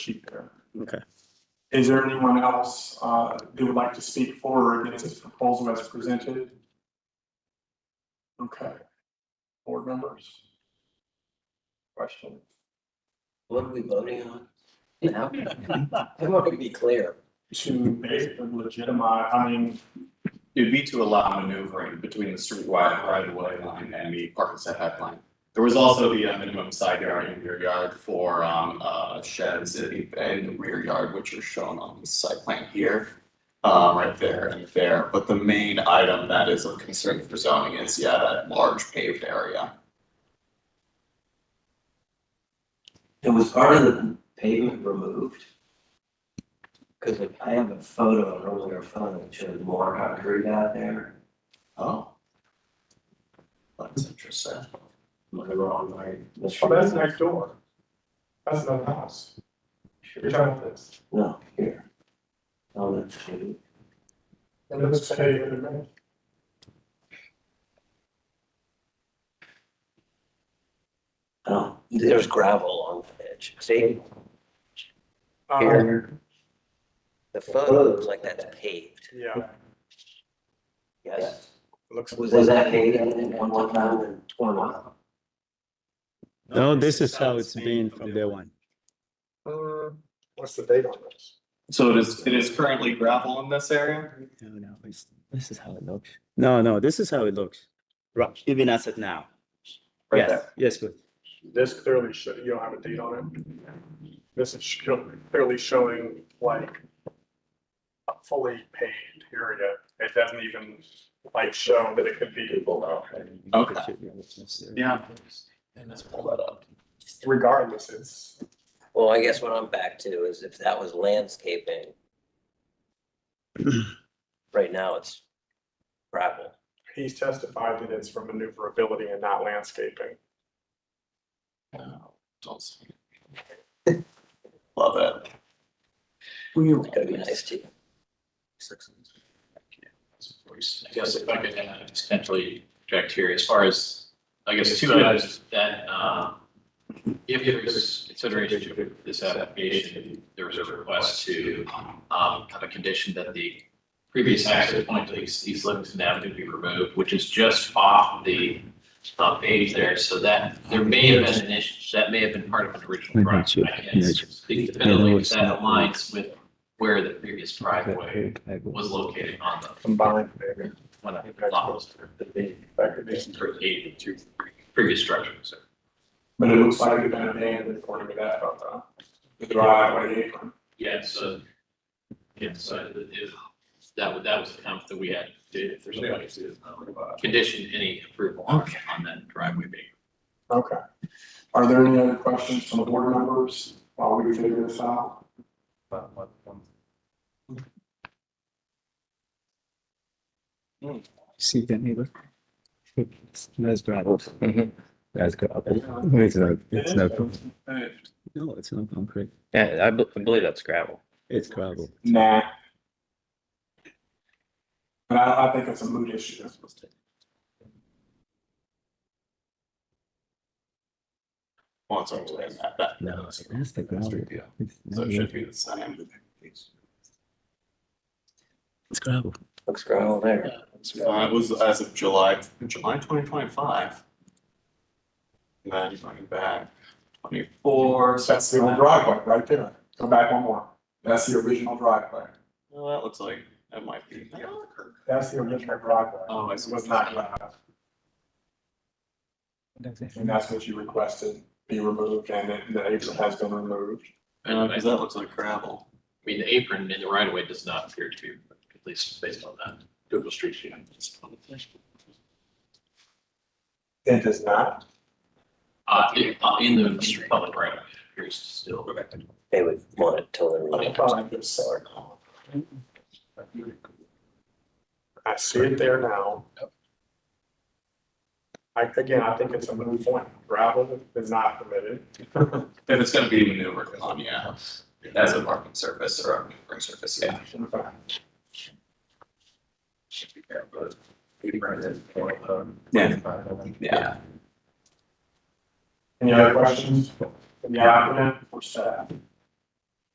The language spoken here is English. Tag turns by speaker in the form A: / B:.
A: sheet there.
B: Okay.
A: Is there anyone else uh, who would like to speak for or against this proposal as presented? Okay. Board members? Question?
C: What are we voting on? Now, I want to be clear.
A: To basically legitimize, I mean,
D: It would be to allow maneuvering between the streetwide right of way line and the parking setback line. There was also the uh, minimum side yard and rear yard for um uh sheds in in the rear yard, which are shown on the site plan here. Um, right there and there, but the main item that is of concern for zoning is, yeah, that large paved area.
C: It was part of the pavement removed. Cause like, I have a photo on earlier phone that shows more concrete out there.
D: Oh. That's interesting. Am I wrong, right?
A: well, Oh, that's next door. That's another house. You're talking about this.
C: No, here. Oh, On the tree.
A: And let's say, wait a minute.
C: Oh, there's gravel on the edge. See,
A: Uh,
C: here. The photo looks like that's paved.
A: Yeah,
C: Yes.
A: looks.
C: Was that paved at one time and torn up?
B: No, this is how it's been from day one.
A: Hmm, What's the date on this?
D: So it is, it is currently gravel in this area?
B: No, no, it's-
C: This is how it looks.
B: No, no, this is how it looks. Right, even as of now.
D: Right
B: Yes,
D: there.
B: Yes, good.
A: This clearly should, you don't have a date on it. This is show- clearly showing like a fully paved area. It doesn't even like show that it could be
D: Okay. Yeah. And let's pull that up.
A: regardless, it's,
C: Well, I guess what I'm back to is if that was landscaping. Right now, it's gravel.
A: he's testified that it's for maneuverability and not landscaping.
D: No, don't see it. Love it.
C: It's gonna be nice to,
E: I guess if I could uh, potentially direct here, as far as, I guess, two items that, uh, if there's consideration to this application, there was a request to, um, have a condition that the previous access point to East East Livingston Avenue be removed, which is just off the, uh, page there, so that, there may have been an issue, that may have been part of an original
B: Mhm,
E: project. I
B: sure.
E: can't
B: Yeah, sure.
E: speak definitively, but
B: it's
E: that
B: not-
E: aligns with where the previous driveway was located on the
A: Combined, maybe.
E: one of the lots
A: That could be.
E: for eight to previous structures.
A: But it looks like it's been abandoned according to that photo. The driveway apron.
E: Yeah, so, yeah, so if, that was, that was the comment that we had, if there's somebody to uh, condition any approval on on that driveway being.
A: Okay. Are there any other questions from the board members while we figure this out?
F: See the neighbor? That's gravel.
C: Mhm.
F: That's gravel. It's not, it's not,
B: No, it's not concrete.
G: Yeah, I bel- I believe that's gravel.
B: It's gravel.
A: Nah. But I, I think it's a mood issue.
D: Well, it's almost like that, that-
B: No, that's the gravel. It's
D: so
B: not
D: it should be
B: gravel.
D: the same.
B: It's gravel.
C: looks gravel there.
D: Uh, it was as of July, July twenty twenty-five. And then going back, twenty-four, so
A: That's the old driveway right there. Go back one more. That's the original driveway.
D: well, that looks like, that might be.
A: That's the original driveway.
D: Oh, I
A: It
D: see.
A: was not allowed, and that's what you requested be removed and it- the apron has been removed.
D: Uh,
E: And I
D: cause that looks like gravel.
E: I mean, the apron in the right of way does not appear to be, at least based on that Google Street View.
A: It does not.
E: Uh, in, uh, in the public right of way, it appears to still.
C: They would want it totally
A: I
C: removed.
A: thought it was solid. I see it there now. I, again, I think it's a moot point. Gravel is not permitted.
D: If it's gonna be maneuvered on, yeah, as a parking surface or a maneuvering surface, yeah.
A: Okay.
D: Yeah. Yeah.
A: Any other questions? from the applicant or staff?